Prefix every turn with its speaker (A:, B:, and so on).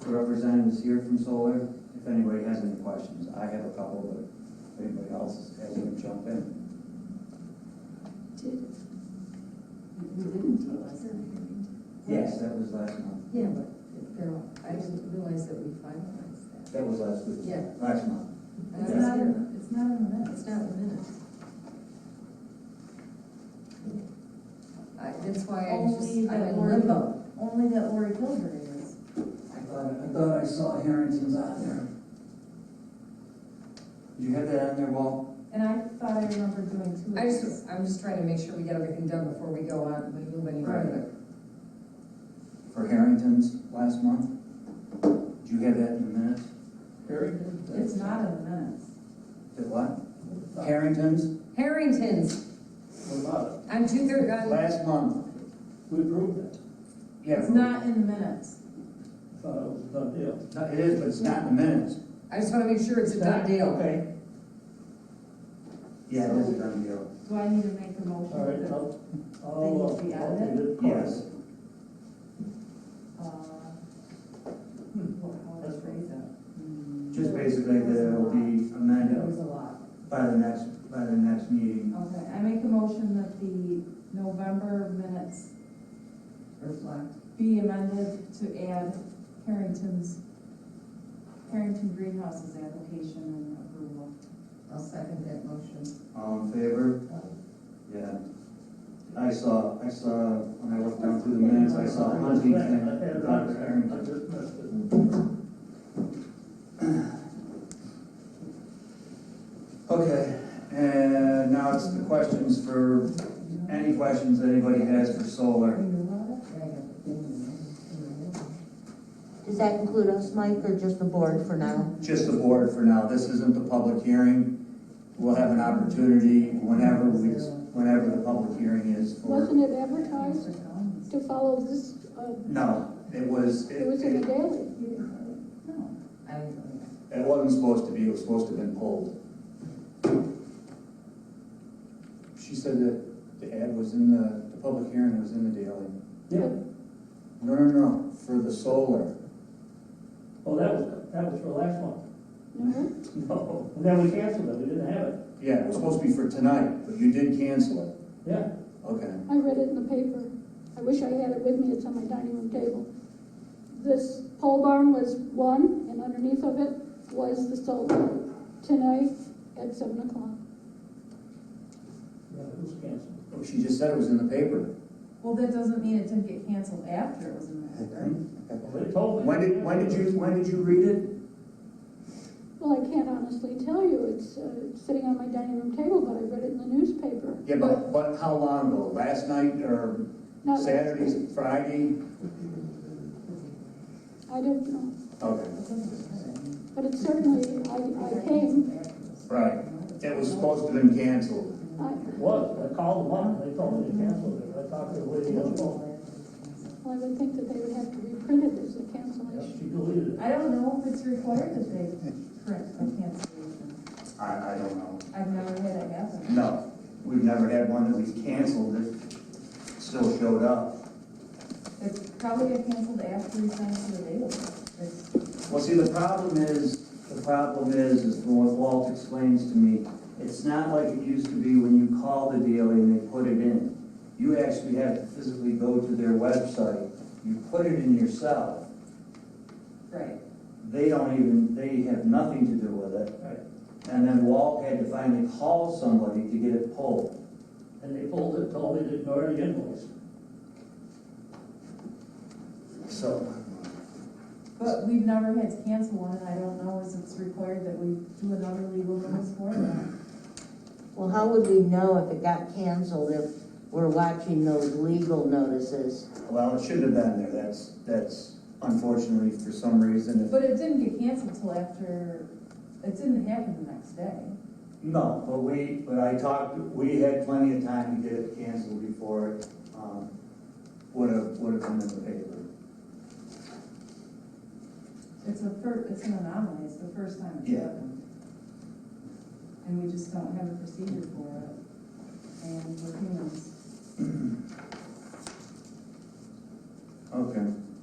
A: the representatives here from Solar, if anybody has any questions. I have a couple, but if anybody else has any, jump in.
B: Did,
C: We didn't do it.
A: Yes, that was last month.
B: yeah, but they're, all- I didn't realize that we finalized that.
A: That was last week.
B: Yeah.
A: Last month.
B: I
C: It's
B: was
C: not,
B: here.
C: in- it's not in the minutes.
B: It's not in the minutes. I, that's why I
C: Only
B: just, I'm
C: that
B: in
C: Lori,
B: limbo.
C: only that Lori Kilgore is.
A: I thought, I thought I saw Harrington's on there. You have that on there, Walt?
C: And I thought I remembered doing two.
B: I just, I'm just trying to make sure we get everything done before we go on, we move any further.
A: For Harrington's last month? Do you have that in the minutes?
D: Harrington?
C: It's not in the minutes.
A: That what? Harrington's,
B: Harrington's,
D: What about
B: on two thirty, on,
A: last month.
D: it? We approved it.
A: Yeah.
C: It's not in the minutes.
D: I Thought it was a done deal.
A: No, It is, but it's not in the minutes.
B: I just wanna make sure it's a done deal.
D: Okay,
A: Yeah, it is a done deal.
C: Do I need to make a motion?
D: all right,
C: that,
D: I'll, I'll, uh,
C: They need to be
D: I'll
C: added?
D: read it.
A: Yes.
C: uh, hmm, what- How to phrase it?
A: Just basically that it'll be
C: It
A: amended
C: was a lot.
A: by the next, by the next meeting.
C: Okay, I make a motion that the November minutes
B: Reflect.
C: be amended to add Harrington's, Harrington Greenhouse's application and approval.
B: I'll second that motion.
A: All in um, favor? Yeah. I saw, I saw, when I looked down through the minutes, I saw Huntington,
D: I had it on
A: Dr.
D: there. I
A: Harrington.
D: just missed it.
A: Okay, and now it's the questions for, any questions that anybody has for solar.
E: Does that include us, Mike, or just the board for now?
A: Just the board for now, this isn't the public hearing. We'll have an opportunity whenever we, whenever the public hearing is for.
F: Wasn't it advertised to follow this, uh,
A: No, it was,
F: it was in the daily?
C: No,
B: I,
A: It wasn't supposed to be, it was supposed to have been pulled. She said that the ad was in the, the public hearing was in the daily.
D: Yeah,
A: No, no, no, for the solar.
D: well, that was, that was for last month.
F: No?
A: Oh.
D: No, and then we canceled it, we didn't have it.
A: Yeah, it was supposed to be for tonight, but you did cancel it.
D: Yeah,
A: Okay.
F: I read it in the paper. I wish I had it with me, it's on my dining room table. This pole barn was one, and underneath of it was the solar. Tonight at seven o'clock.
D: yeah, it was canceled.
A: Oh, She just said it was in the paper.
C: well, that doesn't mean it didn't get canceled after it was in the minutes.
D: Well, they told me.
A: When did, when did you, when did you read it?
F: Well, I can't honestly tell you, it's uh, sitting on my dining room table, but I read it in the newspaper.
A: Yeah, but, but how long ago? Last night or
F: Not-
A: Saturday, Friday?
F: I don't know,
A: Okay.
F: but it certainly, I, I came,
A: Right. It was supposed to have been canceled.
F: I,
D: It was, I called them up, and they told me they canceled it, I talked to the lady on the phone,
F: Well, I would think that they would have to reprint it as a
D: Yeah,
F: cancellation.
D: she deleted it.
C: I don't know if it's required that they correct the cancellation.
A: I, I don't know.
C: I've never had it happen.
A: No, we've never had one that we've canceled that still showed up.
C: It probably got canceled after we signed for the date. It's-
A: Well, see, the problem is, the problem is, is from what Walt explains to me, it's not like it used to be when you call the dealer and they put it in. You actually have to physically go to their website, you put it in yourself.
C: Right.
A: They don't even, they have nothing to do with it.
D: Right.
A: And then Walt had to finally call somebody to get it pulled.
D: And they pulled it, told me to ignore the invoice.
A: So,
C: But we've never had to cancel one, and I don't know if it's required that we do another legal notice for that.
E: Well, how would we know if it got canceled if we're watching those legal notices?
A: well, it shouldn't have been there, that's, that's unfortunately for some reason, if
C: But it didn't get canceled till after, it didn't happen the next day.
A: No, but we, but I talked, we had plenty of time to get it canceled before it, um, would have, would have come in the paper.
C: It's a fir, it's an anomaly, it's the first time it's
A: Yeah.
C: happened. And we just don't have a procedure for it, and we're humans.